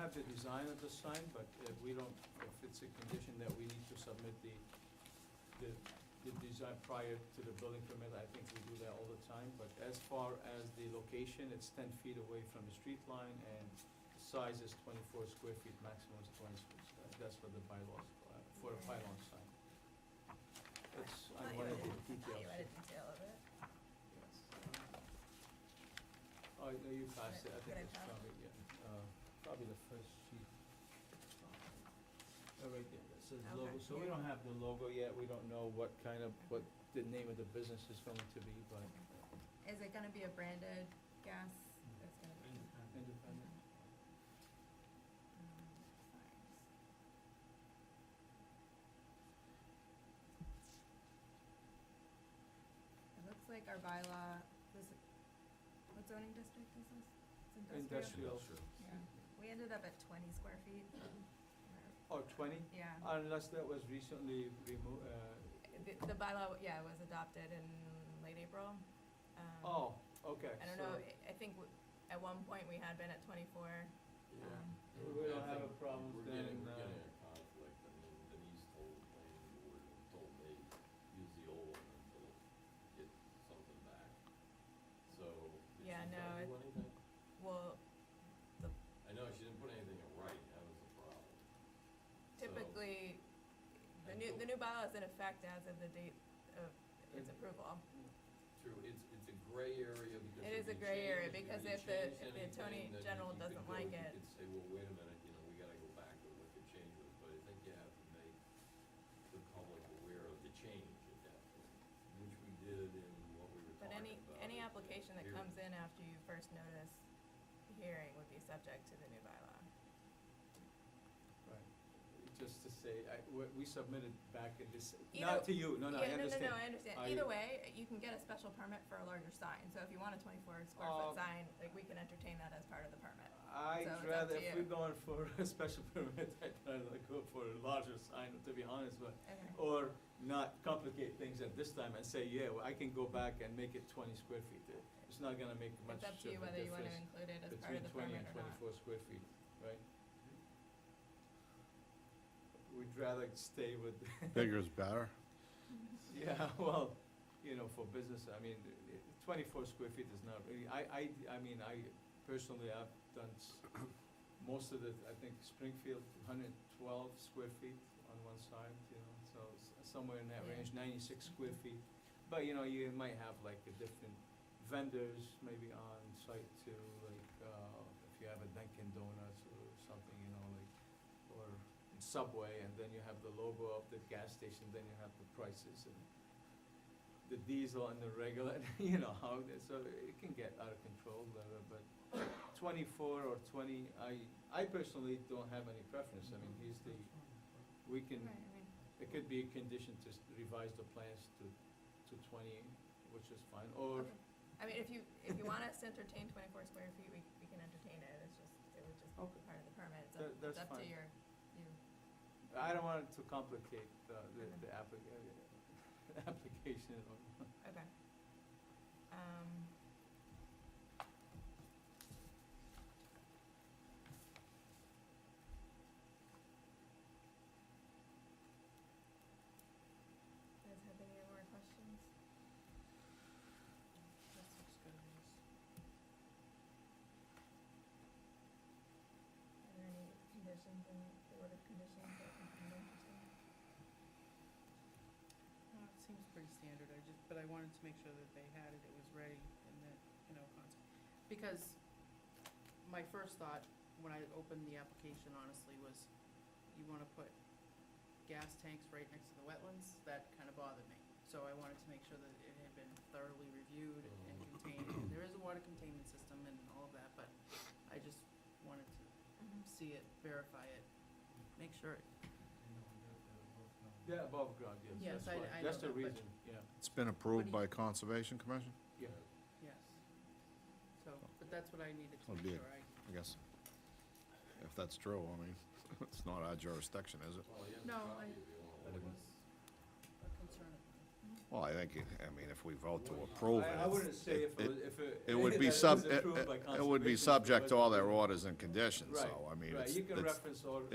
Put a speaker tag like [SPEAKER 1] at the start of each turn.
[SPEAKER 1] have the design at this time, but if we don't, if it's a condition that we need to submit the, the, the design prior to the building permit, I think we do that all the time. But as far as the location, it's ten feet away from the street line and the size is twenty-four square feet, maximum is twenty square. feet. That's for the bylaws, uh, for a pylon sign. That's,
[SPEAKER 2] Thought
[SPEAKER 1] I
[SPEAKER 2] you
[SPEAKER 1] wanted
[SPEAKER 2] had-
[SPEAKER 1] the
[SPEAKER 2] thought you
[SPEAKER 1] details.
[SPEAKER 2] had a detail of it.
[SPEAKER 1] Oh, no, you passed it, I
[SPEAKER 2] Did I
[SPEAKER 1] think it's
[SPEAKER 2] pass?
[SPEAKER 1] probably, yeah, uh, probably the first sheet. Oh, right there, that says
[SPEAKER 2] Okay.
[SPEAKER 1] logo, so we don't have the logo yet, we don't know what kind of, what the name of the business is going to be, but.
[SPEAKER 2] Is it gonna be a branded gas? It's gonna be.
[SPEAKER 1] Independent.
[SPEAKER 2] Um, signs. It looks like our bylaw, this, what zoning district is this? It's industrial?
[SPEAKER 1] Industrial.
[SPEAKER 2] Yeah, we ended up at twenty square feet. Or-
[SPEAKER 1] Or Oh, twenty, Uh,
[SPEAKER 2] Yeah.
[SPEAKER 1] unless that was recently removed, uh,
[SPEAKER 2] The the bylaw, yeah, was adopted in late April. Um,
[SPEAKER 1] oh, okay,
[SPEAKER 2] I don't know,
[SPEAKER 1] so,
[SPEAKER 2] I I think w- at one point we had been at twenty-four.
[SPEAKER 3] Yeah.
[SPEAKER 2] um,
[SPEAKER 1] we don't have a
[SPEAKER 3] We're
[SPEAKER 1] problem
[SPEAKER 3] getting,
[SPEAKER 1] then,
[SPEAKER 3] we're
[SPEAKER 1] uh,
[SPEAKER 3] getting a conflict, I mean, Denise told the planning board, and told they use the old one until get something back. So, did she
[SPEAKER 2] Yeah, no,
[SPEAKER 3] tell you
[SPEAKER 2] it-
[SPEAKER 3] anything?
[SPEAKER 2] Well, the-
[SPEAKER 3] I know, she didn't put anything in writing, that was the problem. So,
[SPEAKER 2] typically, the
[SPEAKER 3] I
[SPEAKER 2] new,
[SPEAKER 3] don't-
[SPEAKER 2] the new bylaw is in effect as of the date of its
[SPEAKER 1] Mm.
[SPEAKER 2] approval.
[SPEAKER 3] True, it's, it's a gray area because.
[SPEAKER 2] It is a
[SPEAKER 3] you
[SPEAKER 2] gray area
[SPEAKER 3] change-
[SPEAKER 2] because
[SPEAKER 3] you
[SPEAKER 2] if the-
[SPEAKER 3] change
[SPEAKER 2] if the
[SPEAKER 3] anything,
[SPEAKER 2] attorney
[SPEAKER 3] then
[SPEAKER 2] general
[SPEAKER 3] you could
[SPEAKER 2] doesn't
[SPEAKER 3] go-
[SPEAKER 2] like it-
[SPEAKER 3] You could say, well, wait a minute, you know, we gotta go back to what the change was, but I think you have to make the public aware of the change at that point, which we did in what we were
[SPEAKER 2] But
[SPEAKER 3] talking
[SPEAKER 2] any,
[SPEAKER 3] about.
[SPEAKER 2] any application that comes in after you first notice the hearing would be subject to the new bylaw.
[SPEAKER 1] right. Just to say, I, we we submitted back in this,
[SPEAKER 2] You know-
[SPEAKER 1] not to you, no, no, I understand.
[SPEAKER 2] Yeah, no, no, no, I understand.
[SPEAKER 1] I-
[SPEAKER 2] Either way, you can get a special permit for a larger sign. So if you want a twenty-four square
[SPEAKER 1] Um,
[SPEAKER 2] foot sign, like, we can entertain that as part of the permit. So it's
[SPEAKER 1] I'd
[SPEAKER 2] up
[SPEAKER 1] rather,
[SPEAKER 2] to
[SPEAKER 1] if we're
[SPEAKER 2] you.
[SPEAKER 1] going for a special permit, I'd rather go for a larger sign, to be honest, but,
[SPEAKER 2] Okay.
[SPEAKER 1] or not complicate things at this time and say, yeah, well, I can go back and make it twenty square feet. It's not gonna make much
[SPEAKER 2] It's up
[SPEAKER 1] of
[SPEAKER 2] to you
[SPEAKER 1] a
[SPEAKER 2] whether you want to
[SPEAKER 1] difference
[SPEAKER 2] include it as part of
[SPEAKER 1] between
[SPEAKER 2] the
[SPEAKER 1] twenty
[SPEAKER 2] permit
[SPEAKER 1] and
[SPEAKER 2] or not.
[SPEAKER 1] twenty-four square feet, right? We'd rather stay with,
[SPEAKER 4] Bigger is better.
[SPEAKER 1] yeah, well, you know, for business, I mean, twenty-four square feet is not really, I, I, I mean, I personally, I've done s- most of the, I think Springfield, hundred and twelve square feet on one side, you know, so s- somewhere in that
[SPEAKER 2] Yeah.
[SPEAKER 1] range, ninety-six square feet. But, you know, you might have like a different vendors maybe on site too, like, uh, if you have a Dunkin' Donuts or something, you know, like, or Subway, and then you have the logo of the gas station, then you have the prices and the diesel and the regular, you know, how, it- so it can get out of control, uh, but twenty-four or twenty, I, I personally don't have any preference, I mean, he's the, we can,
[SPEAKER 2] Right, I mean,
[SPEAKER 1] it could be a condition to s- revise the plans to, to twenty, which is fine, or,
[SPEAKER 2] okay. I mean, if you, if you want us to entertain twenty-four square feet, we, we can entertain it, it's just, it would just
[SPEAKER 1] Okay.
[SPEAKER 2] be part of the permit, it's
[SPEAKER 1] That-
[SPEAKER 2] up,
[SPEAKER 1] that's
[SPEAKER 2] it's up to
[SPEAKER 1] fine.
[SPEAKER 2] your, you.
[SPEAKER 1] I don't want it to complicate the, the- the applic- uh, application or
[SPEAKER 2] Okay. Um. Guys have any more questions? Are there any conditions in the order of conditions that you can mention?
[SPEAKER 5] Well, it seems pretty standard, I just, but I wanted to make sure that they had it, it was ready, and that, you know, cons- because my first thought, when I opened the application honestly, was you wanna put gas tanks right next to the wetlands, that kinda bothered me. So I wanted to make sure that it had been thoroughly reviewed and contained, and there is a water containment system and all of that, but I just wanted to see it, verify it, make sure it
[SPEAKER 1] They're above ground, yes,
[SPEAKER 5] Yes,
[SPEAKER 1] that's
[SPEAKER 5] I- I
[SPEAKER 1] why,
[SPEAKER 5] know
[SPEAKER 1] that's the
[SPEAKER 5] that, but-
[SPEAKER 1] reason, yeah,
[SPEAKER 4] It's been
[SPEAKER 5] What do
[SPEAKER 4] approved
[SPEAKER 5] you-
[SPEAKER 4] by Conservation Commission,
[SPEAKER 1] yeah.
[SPEAKER 5] Yes. So, but that's what I needed to
[SPEAKER 4] That'd
[SPEAKER 5] make
[SPEAKER 4] be
[SPEAKER 5] sure
[SPEAKER 4] it.
[SPEAKER 5] I,
[SPEAKER 4] I guess. If that's true, I mean, it's not our jurisdiction, is it?
[SPEAKER 3] Well, you have a
[SPEAKER 5] No,
[SPEAKER 3] copy
[SPEAKER 5] I-
[SPEAKER 3] if you want
[SPEAKER 5] but
[SPEAKER 3] one.
[SPEAKER 5] it was a concern of mine.
[SPEAKER 2] Mhm.
[SPEAKER 4] Well, I think, it- I mean, if we vote to
[SPEAKER 3] Well,
[SPEAKER 4] approve
[SPEAKER 1] I- I wouldn't
[SPEAKER 4] it,
[SPEAKER 1] say if it, was- if it.
[SPEAKER 4] it would
[SPEAKER 1] that
[SPEAKER 4] be
[SPEAKER 1] was
[SPEAKER 4] sub, it-
[SPEAKER 1] approved by
[SPEAKER 4] it it would be
[SPEAKER 1] conservation,
[SPEAKER 4] subject to
[SPEAKER 1] but-
[SPEAKER 4] all their orders and conditions,
[SPEAKER 1] Right,
[SPEAKER 4] so, I mean,
[SPEAKER 1] right.
[SPEAKER 4] it's,
[SPEAKER 1] You can
[SPEAKER 4] it's-
[SPEAKER 1] reference all,